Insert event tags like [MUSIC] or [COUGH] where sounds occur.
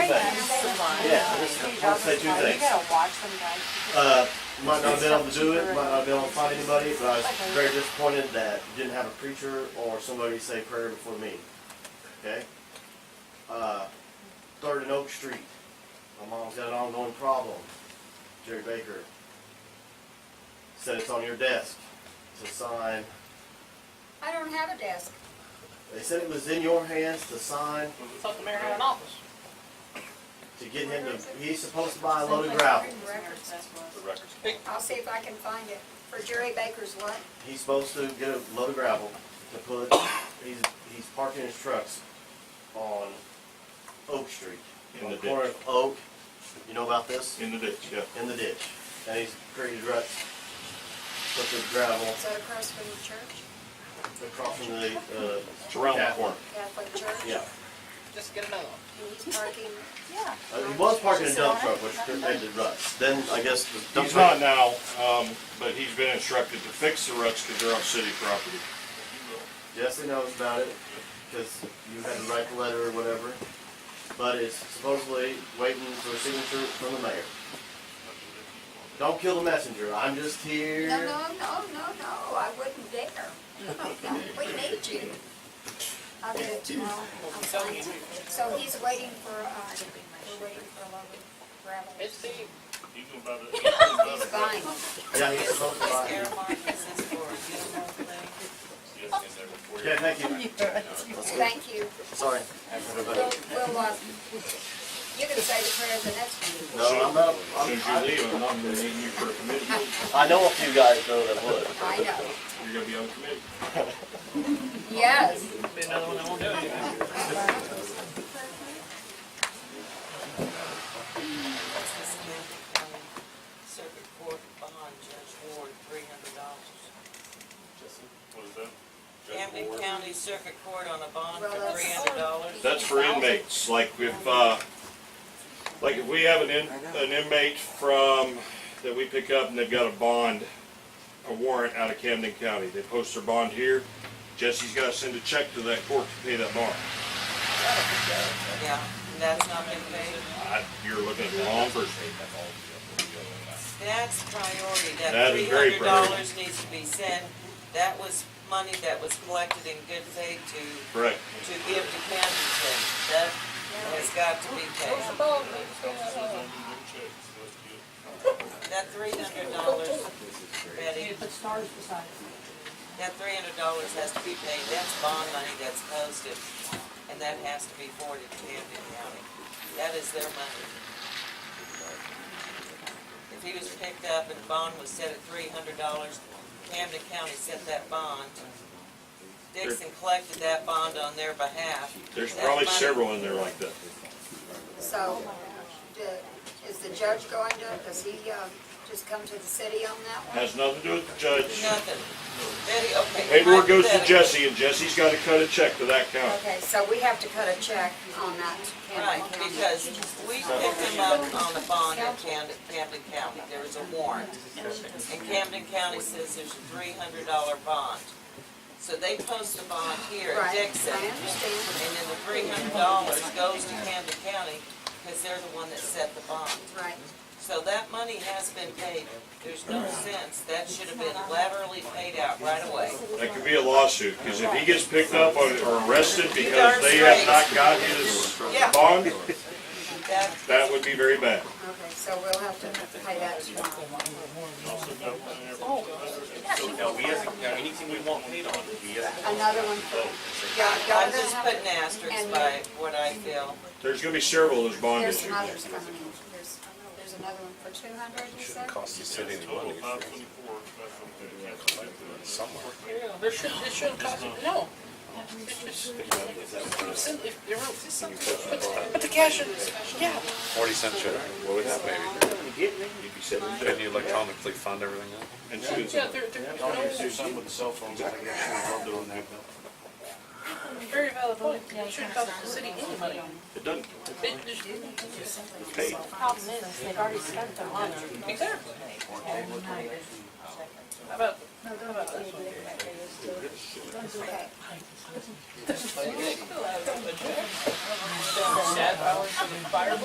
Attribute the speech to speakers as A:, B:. A: Steve
B: I'll say
A: Douglas,
B: two
A: like, you
B: things.
A: gotta watch them, guys.
B: Uh, might not have been able to do it, might not have been able to find anybody, but I was very disappointed that you didn't have a preacher or somebody say prayer before me. Okay? Uh, Third and Oak Street, my mom's got an ongoing problem. Jerry Baker said it's on your desk to sign.
C: I don't have a desk.
B: They said it was in your hands to sign
D: It's up the mayor had an office.
B: to get him to, he's supposed to buy a load of gravel.
C: Records.
E: The records.
C: I'll see if I can find it. For Jerry Baker's what?
B: He's supposed to get a load of gravel to put, he's, he's parking his trucks on Oak Street.
E: In
B: on
E: the
B: corner
E: ditch.
B: of Oak, you know about this?
E: In the ditch, yeah.
B: In the ditch. And he's created ruts, put the gravel
C: Is that across from the church?
B: across from the, uh,
E: It's around the corner.
C: Catholic church?
B: yeah.
D: Just get another one.
C: And he's parking,
A: Yeah.
B: Uh, He was parking a dump truck, which created ruts. Then I guess the dump
E: He's not
B: truck,
E: now, um, but he's been instructed to fix the ruts because they're on city property.
B: Jesse knows about it, because you had to write the letter or whatever. But it's supposedly waiting for a signature from the mayor. Don't kill the messenger. I'm just here.
C: no, no, no, no, no, I wouldn't dare. [LAUGHS] No, We need you. I'll do it tomorrow. I'll find it. So he's waiting for, uh, we're waiting for a load of gravel.
D: It's Steve.
F: You can buy the, you can buy
C: He's
F: the,
C: buying.
B: Yeah, he's supposed to buy.
F: you have to get there before you.
B: Okay, thank you. Let's go.
C: Thank you.
B: Sorry.
C: We'll,
B: Everybody.
C: we'll, uh, you can say the prayer at the next meeting.
B: No, I'm not.
E: As soon
B: I'm,
E: as you leave, I'm not gonna need you for a committee.
B: I know a few guys though that would.
C: I know.
E: You're gonna be on the committee.
C: Yes.
D: Be another one that won't do it.
G: Circuit Court bond, Judge Ward, three hundred dollars.
F: What is that?
G: Camden County Circuit Court on a bond
C: Well,
G: for
C: that's-
G: three hundred dollars.
E: That's for inmates, like if, uh, like if we have an in, an inmate from, that we pick up and they've got a bond, a warrant out of Camden County, they post their bond here, Jesse's gotta send a check to that court to pay that bond.
G: Yeah, and that's not been paid.
E: I- You're looking at the wrong person.
G: That's priority, that
E: That
G: three
E: is very
G: hundred
E: priority.
G: dollars needs to be sent. That was money that was collected in good faith to,
E: Correct.
G: to give to Camden County. That has got to be paid. That three hundred dollars, Betty.
A: You put stars beside it.
G: That three hundred dollars has to be paid, that's bond money that's posted, and that has to be forwarded to Camden County. That is their money. If he was picked up and the bond was set at three hundred dollars, Camden County set that bond. Dixon collected that bond on their behalf.
E: There's
G: That
E: probably
G: money-
E: several in there like that.
C: So, do- is the judge going to, does he uh, just come to the city on that one?
E: Has nothing to do with the judge.
G: Nothing. Betty, okay.
E: Paperwork goes to
G: hypothetically-
E: Jesse and Jesse's gotta cut a check to that county.
C: Okay, so we have to cut a check on that
G: Right,
C: Camden County.
G: because we picked him up on the bond in Camden, Camden County, there was a warrant. And Camden County says there's a three hundred dollar bond. So they post a bond here at
C: Right,
G: Dixon,
C: I
G: and
C: understand.
G: then the three hundred dollars goes to Camden County, because they're the one that set the bond.
C: Right,
G: So that money has been paid, there's no sense, that should have been laterally paid out right away.
E: That could be a lawsuit, because if he gets picked up or or arrested because
G: darn
E: they have
G: straight.
E: not got his
G: Yeah.
E: bond,
G: That,
E: that would be very bad.
C: okay, so we'll have to pay that tomorrow.
H: No, we have, now, anything we want paid on, we have
C: Another one for, yeah, y'all
G: I'm
C: gonna
G: just
C: have
G: putting
C: to-
G: asterisks by what I feel.
E: There's gonna be several of those bond
C: There's
E: issues.
C: some others coming in. There's, there's another one for two hundred, you said?
H: cost the city any
F: Total
H: money
F: five twenty-four, that's what they calculated.
H: somewhere.
D: Yeah, there should, it shouldn't cost, no. It's just- Simply, if they're real- it's something- Put put the cash in, yeah.
H: Forty cent check, what would that maybe? Can you electronically fund everything up?
E: And so it's-
D: Yeah, they're, they're, no,
H: something with the cell phones, I guess, doing that.
D: very valid point, it shouldn't cost the city any money.
E: It doesn't,
D: It just-
A: Problem is, they've already spent their money.
D: Exactly. How about,
C: Okay,
D: sad hours for the fire?